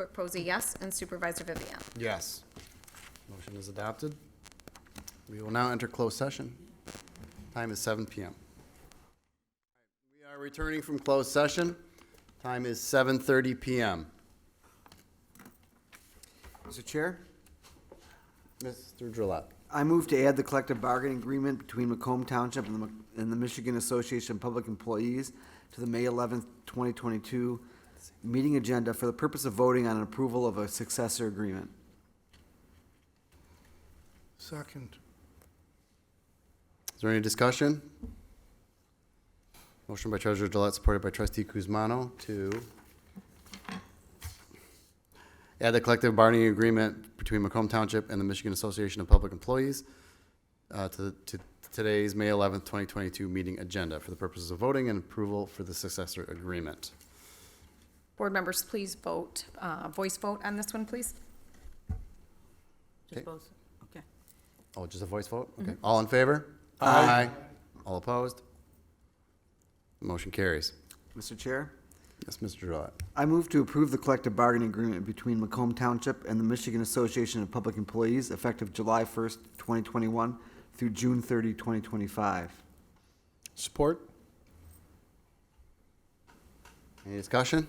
Clerk Posey, yes, and Supervisor Vivian. Yes. Motion is adopted. We will now enter closed session. Time is 7 PM. We are returning from closed session. Time is 7:30 PM. Mr. Chair, Mr. Drollet. I move to add the collective bargaining agreement between Macomb Township and the, Mc- and the Michigan Association of Public Employees to the May eleventh, twenty twenty-two meeting agenda for the purpose of voting on approval of a successor agreement. Second. Is there any discussion? Motion by Treasurer Drollet, supported by Trustee Kuzmano to add the collective bargaining agreement between Macomb Township and the Michigan Association of Public Employees uh, to to today's May 11th, 2022 meeting agenda for the purposes of voting and approval for the successor agreement. Board members, please vote, uh, voice vote on this one, please. Okay. Just both, okay. Oh, just a voice vote? Okay. All in favor? Aye. All opposed? Motion carries. Mr. Chair, Yes, Mr. Drollet. I move to approve the collective bargaining agreement between Macomb Township and the Michigan Association of Public Employees effective July first, twenty twenty-one through June 30, 2025. Support. Any discussion?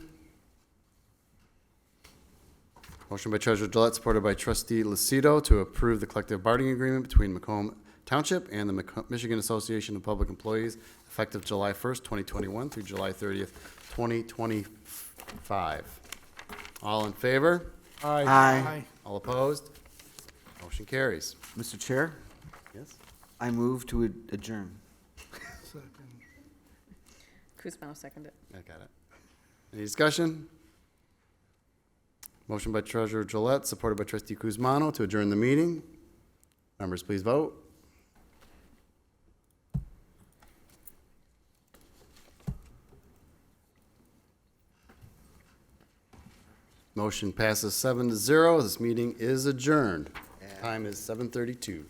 Motion by Treasurer Gillette, supported by Trustee Lucido to approve the collective bargaining agreement between Macomb Township and the Maco- Michigan Association of Public Employees effective July 1st, 2021 through July 30th, 2025. All in favor? Aye. Aye. All opposed? Motion carries. Mr. Chair, Yes. I move to ad- adjourn. Second. Kuzma seconded. I got it. Any discussion? Motion by Treasurer Gillette, supported by Trustee Kuzmano to adjourn the meeting. Members, please vote. Motion passes seven to zero. This meeting is adjourned. Time is seven thirty-two.